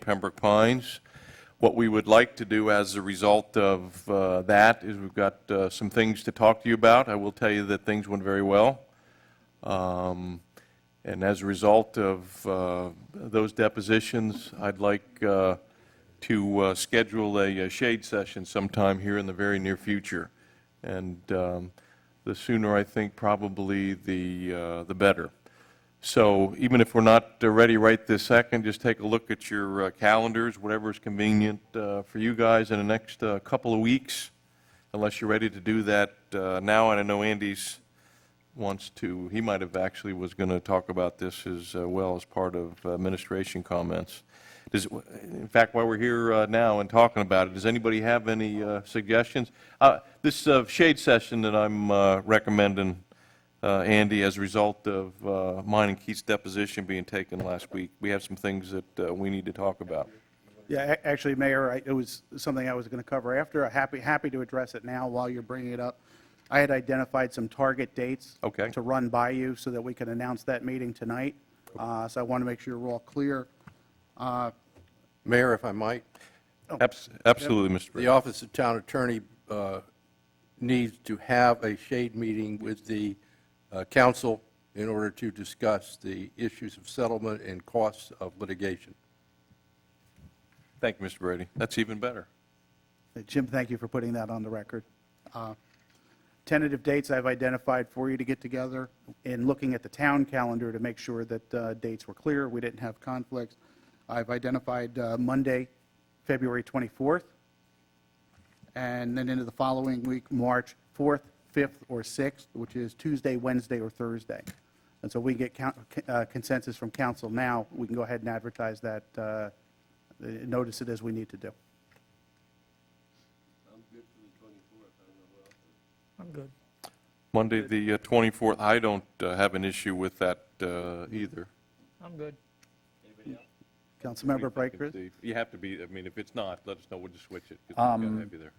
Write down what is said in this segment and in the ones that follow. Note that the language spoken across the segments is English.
Pembroke Pines. What we would like to do as a result of uh, that is we've got uh, some things to talk to you about. I will tell you that things went very well. Um, And as a result of uh, those depositions, I'd like uh, to uh, schedule a uh, shade session sometime here in the very near future. And um, the sooner, I think, probably the, uh, the better. So even if we're not uh, ready right this second, just take a look at your uh, calendars, whatever is convenient uh, for you guys in the next uh, couple of weeks, unless you're ready to do that uh, now. And I know Andy's wants to, he might have actually was going to talk about this as uh, well as part of administration comments. Does, in fact, while we're here uh, now and talking about it, does anybody have any uh, suggestions? Uh, This uh, shade session that I'm uh, recommending, uh, Andy, as a result of uh, mine and Keith's deposition being taken last week, we have some things that uh, we need to talk about. Yeah, a- actually, Mayor, I- it was something I was going to cover after. Happy, happy to address it now while you're bringing it up. I had identified some target dates. Okay. To run by you so that we can announce that meeting tonight. Uh, So I want to make sure we're all clear. Mayor, if I might, Abs- Absolutely, Mr. the Britton. Office of Town Attorney uh, needs to have a shade meeting with the uh, council in order to discuss the issues of settlement and costs of litigation. Thank you, Mr. Brady. That's even better. Uh, Jim, thank you for putting that on the record. Uh, Tentative dates I've identified for you to get together and looking at the town calendar to make sure that uh, dates were clear, we didn't have conflicts. I've identified uh, Monday, February 24th, and then into the following week, March 4th, 5th, or 6th, which is Tuesday, Wednesday, or Thursday. And so we get coun- uh, consensus from council now, we can go ahead and advertise that, uh, uh, notice it as we need to do. I'm good. Monday, the uh, 24th, I don't uh, have an issue with that uh, either. I'm good. Councilmember Brightcrus? Vacancy. You have to be, I mean, if it's not, let us know, we'll just switch it, because we Um, gotta have you there.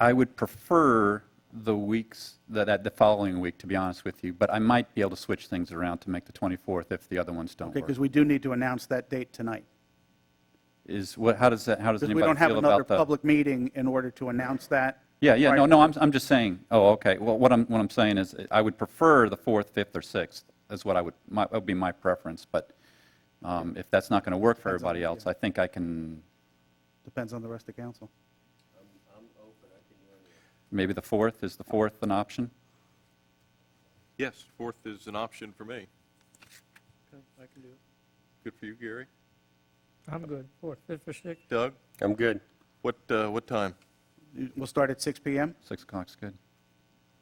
I would prefer the weeks, that, that the following week, to be honest with you, but I might be able to switch things around to make the 24th if the other ones don't Okay, work. because we do need to announce that date tonight. Is, what, how does that, how does Because we don't anybody have feel another about the? public meeting in order to announce that. Yeah, yeah, no, Right. no, I'm, I'm just saying, oh, okay, well, what I'm, what I'm saying is, I would prefer the 4th, 5th, or 6th, is what I would, my, would be my preference, but um, if that's not going to work for everybody else, I think I can, Depends on the rest of council. maybe the 4th, is the 4th an option? Yes, fourth is an option for me. Good for you, Gary. I'm good. Fourth, fifth, or sixth? Doug, I'm good. what, uh, what time? We'll start at 6 PM. 6 o'clock's good.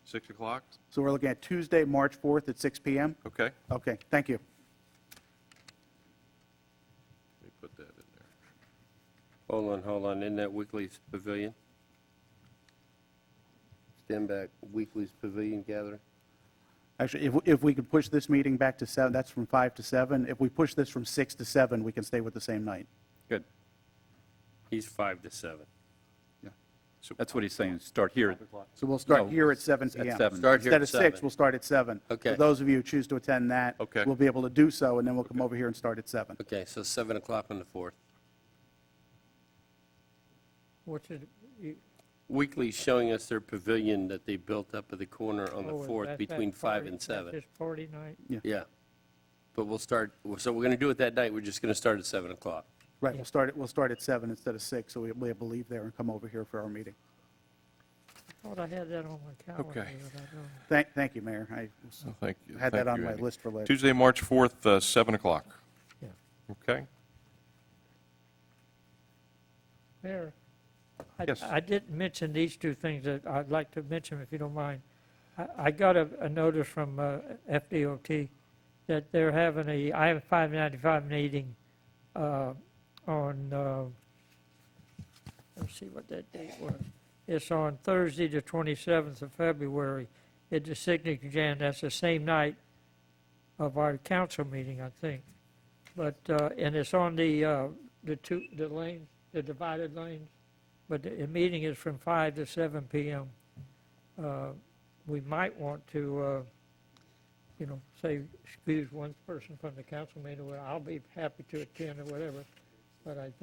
6 o'clock? So we're looking at Tuesday, March 4th at 6 PM? Okay, let Okay, thank you. me put that in there. Hold on, hold on, isn't that Weekly's Pavilion? Stand back, Weekly's Pavilion gathering? Actually, if, if we could push this meeting back to 7, that's from 5 to 7. If we push this from 6 to 7, we can stay with the same night. Good. He's five to seven. That's what he's saying, start here at So we'll start No, here at 7 at PM. 7. Start here Instead at of 6, seven. we'll start at 7. Okay. For those of you who choose to attend that, Okay. we'll be able to do so, and then we'll come over here and start at 7. Okay, so seven o'clock on the fourth. What's it, you, Weekly's showing us their pavilion that they built up at the corner on the oh, fourth that's that between five party- and that's seven. this party night? Yeah. But we'll start, so we're gonna do it that night, we're just gonna start at seven o'clock. Right, we'll start, at we'll start at 7 instead of 6, so we- we'll be able to leave there and come over here for our meeting. I thought I had that on my calendar. Okay. but I don't. Thank, thank you, Mayor. I Oh, Thank you. had that Thank on you, my Andy. list for later. Tuesday, March 4th, uh, 7 o'clock. Yeah. Okay, Mayor, I- Yes. I didn't mention these two things that I'd like to mention, if you don't mind. I- I got a a notice from uh, FDOT that they're having a I-595 meeting uh, on, uh, let's see what that date was. It's on Thursday, the 27th of February, at the Signet Jan. That's the same night of our council meeting, I think. But, uh, and it's on the, uh, the two, the lanes, the divided lanes, but the the meeting is from 5 to 7 PM. Uh, We might want to, uh, you know, say, excuse one person from the council meeting, well, I'll be happy to attend or whatever, but I